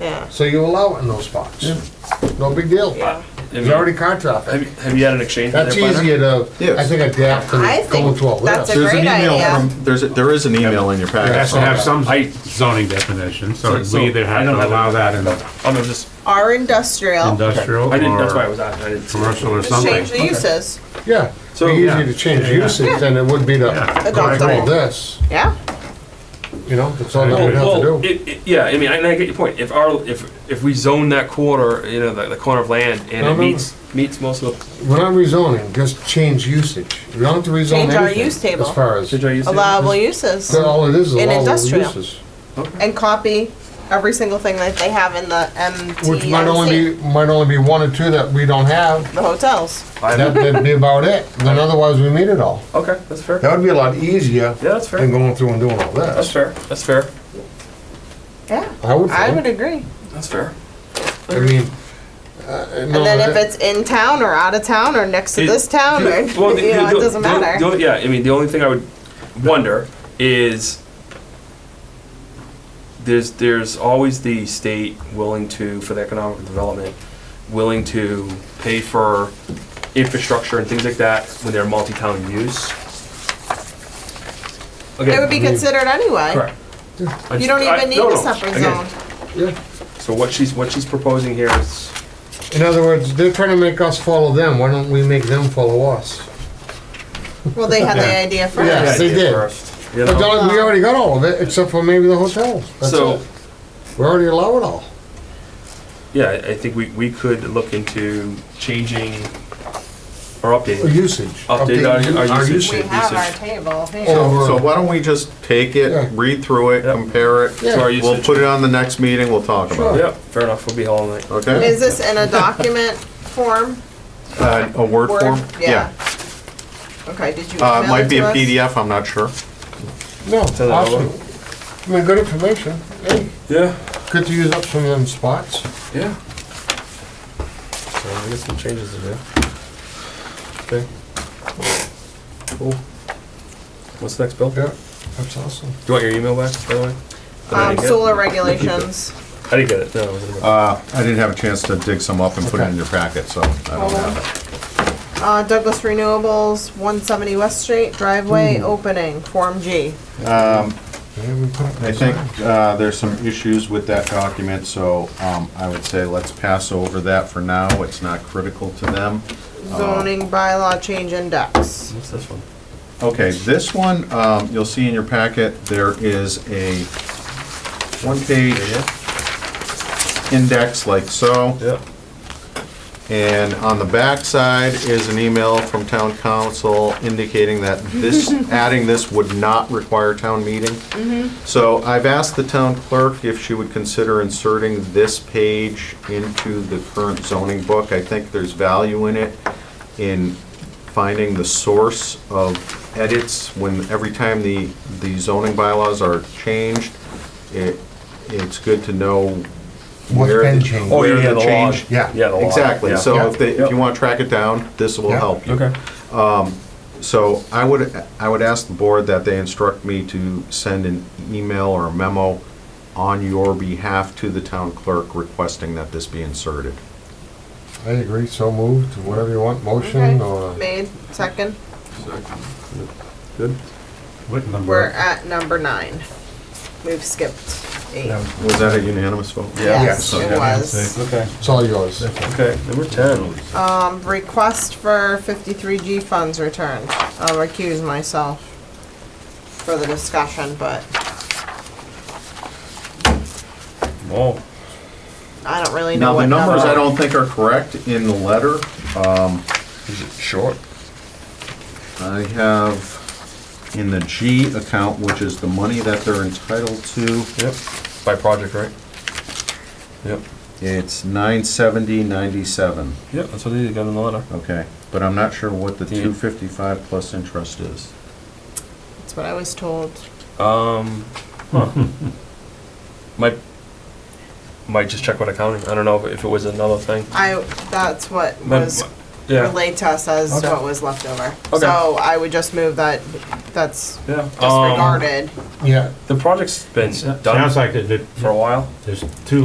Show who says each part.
Speaker 1: Yeah,
Speaker 2: So you allow it in those spots. No big deal.
Speaker 1: yeah.
Speaker 2: There's already contracted.
Speaker 3: Have you, have you had an exchange? with
Speaker 2: That's
Speaker 3: their planner?
Speaker 2: easier to, I
Speaker 4: Yes.
Speaker 2: think, adapt to
Speaker 1: I
Speaker 2: going
Speaker 1: think
Speaker 2: to a
Speaker 1: that's
Speaker 2: list.
Speaker 1: a
Speaker 4: There's
Speaker 1: great
Speaker 4: an email
Speaker 1: idea.
Speaker 4: from, there's, a- there is an email in your
Speaker 5: It has to
Speaker 4: packet.
Speaker 5: have some
Speaker 3: I-
Speaker 5: zoning definition, so
Speaker 3: So-
Speaker 5: we either
Speaker 3: I
Speaker 5: have
Speaker 3: don't
Speaker 5: to
Speaker 3: have
Speaker 5: allow
Speaker 3: it.
Speaker 5: that in
Speaker 3: I'm Oh, just,
Speaker 1: Our industrial,
Speaker 5: industrial
Speaker 3: I didn't, that's why I
Speaker 5: or
Speaker 3: was on, I didn't see. it.
Speaker 5: commercial or
Speaker 1: just change the
Speaker 5: something.
Speaker 1: uses.
Speaker 2: Yeah,
Speaker 3: So-
Speaker 2: it'd be
Speaker 5: Yeah.
Speaker 2: easier to change
Speaker 5: Yeah, yeah.
Speaker 2: uses than it would be to
Speaker 5: Yeah.
Speaker 2: go
Speaker 1: Adopt
Speaker 2: through all
Speaker 1: all.
Speaker 2: this,
Speaker 1: Yeah,
Speaker 2: you know? That's all that
Speaker 5: I
Speaker 2: would
Speaker 5: agree.
Speaker 2: have to
Speaker 3: Well,
Speaker 2: do.
Speaker 3: it, it, yeah, I mean, and I get your point. If our, if, if we zone that quarter, you know, the, the corner of land and
Speaker 2: No, no, no.
Speaker 3: it meets, meets most of the.
Speaker 2: We're not rezoning, just change usage. We don't have to rezone anything.
Speaker 1: Change our use table.
Speaker 2: As far as,
Speaker 3: Did I use it?
Speaker 1: allowable uses.
Speaker 2: so all it is is
Speaker 1: In
Speaker 2: allowable
Speaker 1: industrial.
Speaker 2: uses.
Speaker 1: And copy every single thing that they have in the
Speaker 2: Which might only
Speaker 1: MTMC,
Speaker 2: be, might only be one or two that we don't have.
Speaker 1: the hotels.
Speaker 2: That- That'd be about it. Then otherwise, we meet it all.
Speaker 3: Okay, that's fair. Yeah,
Speaker 2: That would be a lot easier
Speaker 3: that's
Speaker 2: than
Speaker 3: fair.
Speaker 2: going through and doing all
Speaker 3: That's
Speaker 2: this.
Speaker 3: fair. That's fair.
Speaker 1: Yeah,
Speaker 2: I would
Speaker 1: I would
Speaker 2: think.
Speaker 1: agree.
Speaker 3: That's fair.
Speaker 2: I mean. uh,
Speaker 1: And then if it's in town or out of town or next to
Speaker 3: It-
Speaker 1: this town or, you
Speaker 3: Well,
Speaker 1: know,
Speaker 3: the- the-
Speaker 1: it
Speaker 3: the-
Speaker 1: doesn't
Speaker 3: the- the
Speaker 1: matter.
Speaker 3: only- Yeah, I mean, the only thing I would wonder is there's, there's always the state willing to, for the economic development, willing to pay for infrastructure and things like that when they're multi-town use.
Speaker 1: It would be
Speaker 2: mean-
Speaker 1: considered anyway.
Speaker 3: Correct. I
Speaker 1: You
Speaker 3: just-
Speaker 1: don't
Speaker 3: I-
Speaker 1: even need
Speaker 3: no,
Speaker 1: a
Speaker 3: no,
Speaker 1: separate
Speaker 3: again,
Speaker 1: zone.
Speaker 2: Yeah.
Speaker 3: So what she's, what she's proposing here is,
Speaker 2: In other words, they're trying to make us follow them. Why don't we make them follow us?
Speaker 1: Well, they had the idea
Speaker 2: Yeah.
Speaker 1: first.
Speaker 2: Yes, they
Speaker 3: idea
Speaker 2: did.
Speaker 3: first, you
Speaker 2: But
Speaker 3: know?
Speaker 2: don't- we already got all of it, except for maybe the hotels. That's
Speaker 3: So,
Speaker 2: it. We already allow it all.
Speaker 3: yeah, I I think we, we could look into changing or updating.
Speaker 2: Or Usage.
Speaker 3: Update
Speaker 2: Updating
Speaker 3: our- our usage.
Speaker 1: We have our table here.
Speaker 4: So
Speaker 2: Over,
Speaker 4: why don't we just take
Speaker 2: Yeah.
Speaker 4: it, read through it,
Speaker 3: Yep.
Speaker 4: compare it,
Speaker 2: Yeah.
Speaker 3: to our
Speaker 4: we'll
Speaker 3: usage.
Speaker 4: put it on the next meeting, we'll talk about it,
Speaker 3: Oh, Yeah, fair enough, we'll be all night.
Speaker 4: okay?
Speaker 1: Is this in a document form?
Speaker 4: Uh, A Word
Speaker 1: Word?
Speaker 4: form?
Speaker 1: Okay, did you
Speaker 4: Uh, it
Speaker 1: email
Speaker 4: might
Speaker 1: it
Speaker 4: be
Speaker 1: to
Speaker 4: a
Speaker 1: us?
Speaker 4: PDF, I'm not sure.
Speaker 2: no,
Speaker 3: that
Speaker 2: awesome. I mean, good information. Hey,
Speaker 3: Yeah,
Speaker 2: good to use up some of them spots.
Speaker 3: yeah. So I guess some changes to do.
Speaker 2: Okay,
Speaker 3: Cool. What's next, Bill? Do
Speaker 2: yeah, that's awesome.
Speaker 3: you want your email back, by the way? That I
Speaker 1: Um,
Speaker 3: didn't get?
Speaker 1: solar regulations.
Speaker 3: I didn't get it, no. I wasn't gonna-
Speaker 4: Uh, I didn't have a chance to dig some up and put it
Speaker 2: Okay.
Speaker 4: in your packet, so I don't
Speaker 1: Hold on.
Speaker 4: have it.
Speaker 1: Uh, Douglas Renewables, one seventy West Street, driveway opening, Form G.
Speaker 2: They haven't put up
Speaker 4: I
Speaker 2: the
Speaker 4: think
Speaker 2: sign.
Speaker 4: uh, there's some issues with that document, so um, I would say let's pass over that for now. It's not critical to them. Uh,
Speaker 1: Zoning bylaw change index.
Speaker 3: What's this one?
Speaker 4: Okay, this one, um, you'll see in your packet, there is a one-page index like so.
Speaker 3: Yeah.
Speaker 4: And on the back side is an email from town council indicating that this, adding this would not require town meeting. So I've asked the town clerk if she would consider inserting this page into the current zoning book. I think there's value in it, in finding the source of edits when, every time the, the zoning bylaws are changed, it, it's good to know
Speaker 2: What's
Speaker 4: where
Speaker 2: been
Speaker 4: the-
Speaker 2: changed.
Speaker 3: Oh, yeah,
Speaker 4: where
Speaker 3: yeah, the log.
Speaker 4: change-
Speaker 2: Yeah.
Speaker 3: Yeah, the log.
Speaker 4: Exactly,
Speaker 3: yeah.
Speaker 4: so if
Speaker 3: Yeah.
Speaker 4: they, if you
Speaker 3: Yep.
Speaker 4: wanna track it down, this will
Speaker 2: Yeah.
Speaker 4: help you.
Speaker 3: Okay.
Speaker 4: So I would, I would ask the board that they instruct me to send an email or a memo on your behalf to the town clerk requesting that this be inserted.
Speaker 2: I agree, so moved, whatever you want, motion or.
Speaker 1: Okay, made, second.
Speaker 3: Good.
Speaker 5: What
Speaker 1: We're
Speaker 5: number?
Speaker 1: at number nine. We've skipped eight.
Speaker 2: Yeah.
Speaker 4: Was that a unanimous vote?
Speaker 1: Yes,
Speaker 2: Yeah, so
Speaker 1: it
Speaker 2: yeah,
Speaker 1: was.
Speaker 3: Okay,
Speaker 2: It's all yours.
Speaker 3: okay, number ten.
Speaker 1: Um, request for fifty-three G funds returned. I'll recuse myself for the discussion, but
Speaker 3: Whoa.
Speaker 1: I don't really know
Speaker 4: Now,
Speaker 1: what
Speaker 4: the
Speaker 1: number.
Speaker 4: numbers I don't think are correct in the letter. Um,
Speaker 3: Is it short?
Speaker 4: I have in the G account, which is the money that they're entitled to,
Speaker 3: Yep. By project, right? Yep.
Speaker 4: it's nine seventy ninety-seven.
Speaker 3: Yep, that's what they got in the letter.
Speaker 4: Okay, but I'm not sure what the
Speaker 3: Do you-
Speaker 4: two fifty-five plus interest is.
Speaker 1: That's what I was told.
Speaker 3: Um, huh. might might just check with accounting. I don't know if, if it was another thing.
Speaker 1: I, that's what
Speaker 3: But-
Speaker 1: was
Speaker 3: yeah,
Speaker 1: relayed to us as
Speaker 3: Okay.
Speaker 1: what was left over.
Speaker 3: Okay.
Speaker 1: So I would just move that, that's
Speaker 3: yeah. Um,
Speaker 1: disregarded.
Speaker 2: Yeah,
Speaker 3: the project's been done
Speaker 5: Sounds like it did
Speaker 3: for a while.
Speaker 5: there's two